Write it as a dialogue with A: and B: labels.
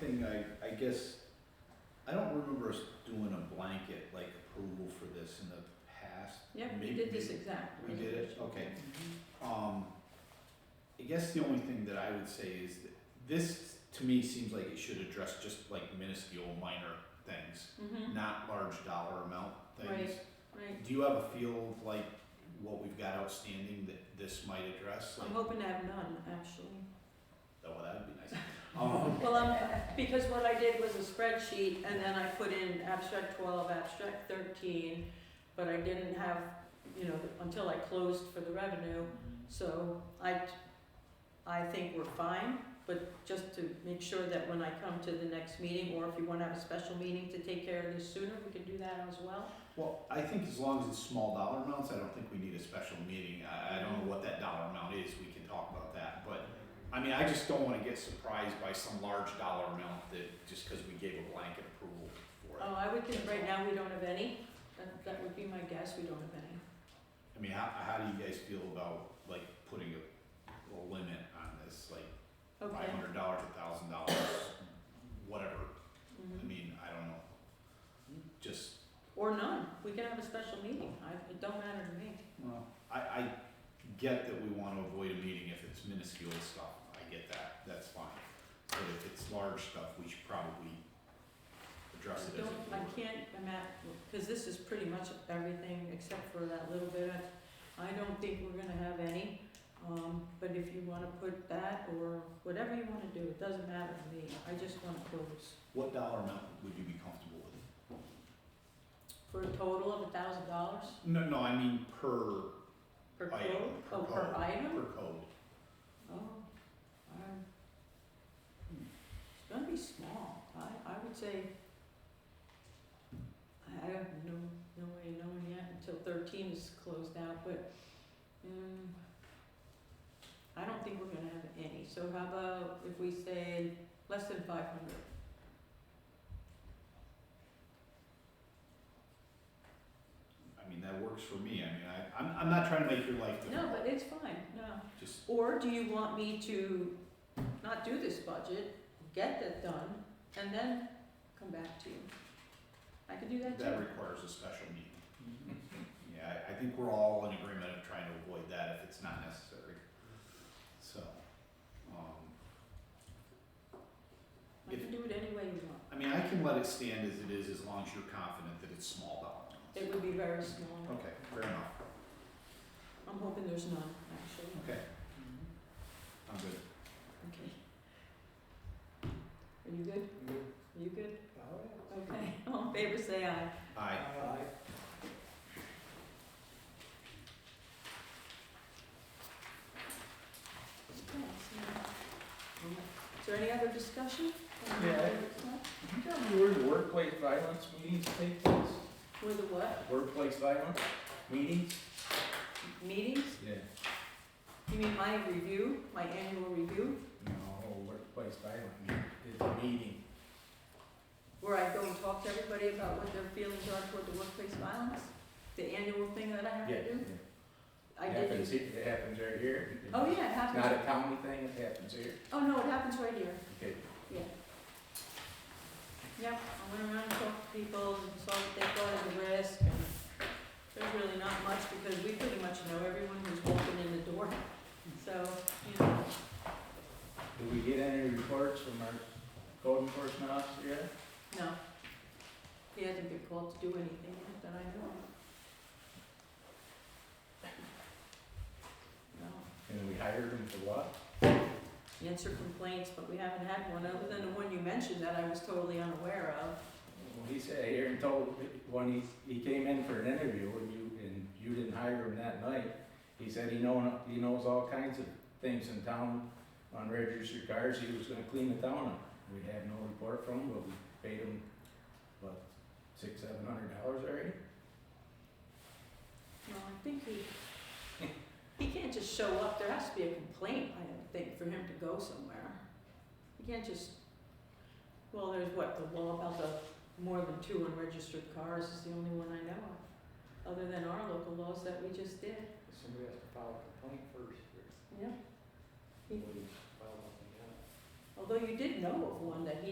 A: thing I, I guess, I don't remember us doing a blanket like approval for this in the past.
B: Yep, we
A: Maybe-
B: did this
A: maybe-
B: exact.
A: we did it?
B: resolution.
A: Okay.
B: Mhm.
A: Um, I guess the only thing that I would say is that this, to me, seems like it should address just like minuscule minor things,
B: Mhm,
A: not large dollar amount things.
B: right.
A: Do you have a feel of like what we've got outstanding that this might address?
B: I'm
A: Like,
B: hoping to have none, actually.
A: oh, that'd be nice. Um,
B: Well, I'm, because what I did was a spreadsheet and then I put in abstract twelve, abstract thirteen, but I didn't have, you know, until I closed for the revenue. So I, I think we're fine, but just to make sure that when I come to the next meeting, or if you wanna have a special meeting to take care of this sooner, we can do that as well.
A: Well, I think as long as it's small dollar amounts, I don't think we need a special meeting. I, I don't know what that dollar amount is, we can talk about that, but I mean, I just don't wanna get surprised by some large dollar amount that, just cause we gave a blanket approval for it.
B: Oh, I would think right now we don't have any, that, that would be my guess, we don't have any.
A: I mean, how, how do you guys feel about like putting a, a limit on this, like five
B: Okay.
A: hundred dollars, a thousand dollars, whatever? I
B: Mhm.
A: mean, I don't know. Just
B: Or none, we can have a special meeting, I, it don't matter to me.
A: Well, I, I get that we wanna avoid a meeting if it's minuscule stuff, I get that, that's fine. But if it's large stuff, we should probably address it
B: I
A: as
B: don't,
A: a
B: I
A: board.
B: can't imagine, because this is pretty much everything except for that little bit. of- I don't think we're gonna have any, um, but if you wanna put that or whatever you wanna do, it doesn't matter to me. I just wanna close
A: What dollar amount would you be comfortable with?
B: for a total of a thousand dollars
A: No, no, I mean per,
B: per
A: Item,
B: code,
A: per
B: oh, per
A: code. per
B: item?
A: code.
B: Oh, um, hmm. it's gonna be small. I, I would say, I, I have no, no way of knowing yet until thirteen is closed out, but, mm, I don't think we're gonna have any. So how about if we say less than five hundred?
A: I mean, that works for me, I mean, I, I'm, I'm not trying to make your life
B: No,
A: difficult,
B: but it's fine, no.
A: just,
B: Or do you want me to not do this budget, get that done, and then come back to you? I could do that too.
A: that requires a special meeting. Yeah, I, I think we're all in agreement of trying to avoid that if it's not necessary. So, um,
B: I can do it any way you want.
A: I mean, I can let it stand as it is as long as you're confident that it's small dollar
B: It would be very small.
A: amounts. Okay, fair enough.
B: I'm hoping there's none, actually.
A: Okay, I'm good.
B: Okay. Are you good? Are you good? Okay. All in favor, say aye.
A: Aye.
B: Is there any other discussion?
C: Yeah. You tell me where the workplace violence meetings take place?
B: Were the what?
C: Workplace violence meetings?
B: Meetings?
C: Yeah.
B: You mean my review, my annual review,
C: No, workplace violence is a meeting.
B: where I go and talk to everybody about what their feelings are toward the workplace violence? The annual thing that I have to do? I
C: It
B: did
C: happens,
B: it.
C: here- it happens right here.
B: Oh, yeah, it
C: It's Not
B: happens.
C: a county thing, it happens here.
B: Oh, no, it happens right here.
C: Okay.
B: Yep, I went around and talked to people and saw what they thought of the risk and there's really not much because we pretty much know everyone who's walking in the door. So, you know,
C: Do we get any reports from our code enforcement officer yet?
B: no. He hasn't been called to do anything yet that I know of. No.
C: And we hired him for what?
B: Answer complaints, but we haven't had one other than the one you mentioned that I was totally unaware of.
C: Well, he said here and told, when he, he came in for an interview and you, and you didn't hire him that night, he said he know, he knows all kinds of things in town on registered cars, he was gonna clean the town up. We had no report from him, but we paid him, what, six, seven hundred dollars already?
B: No, I think he, he can't just show up, there has to be a complaint, I don't think, for him to go somewhere. He can't just, well, there's what, the law about the more than two unregistered cars is the only one I know of, other than our local laws that we just did.
C: Somebody has to file a complaint first,
B: Yeah. Although you did know of one that he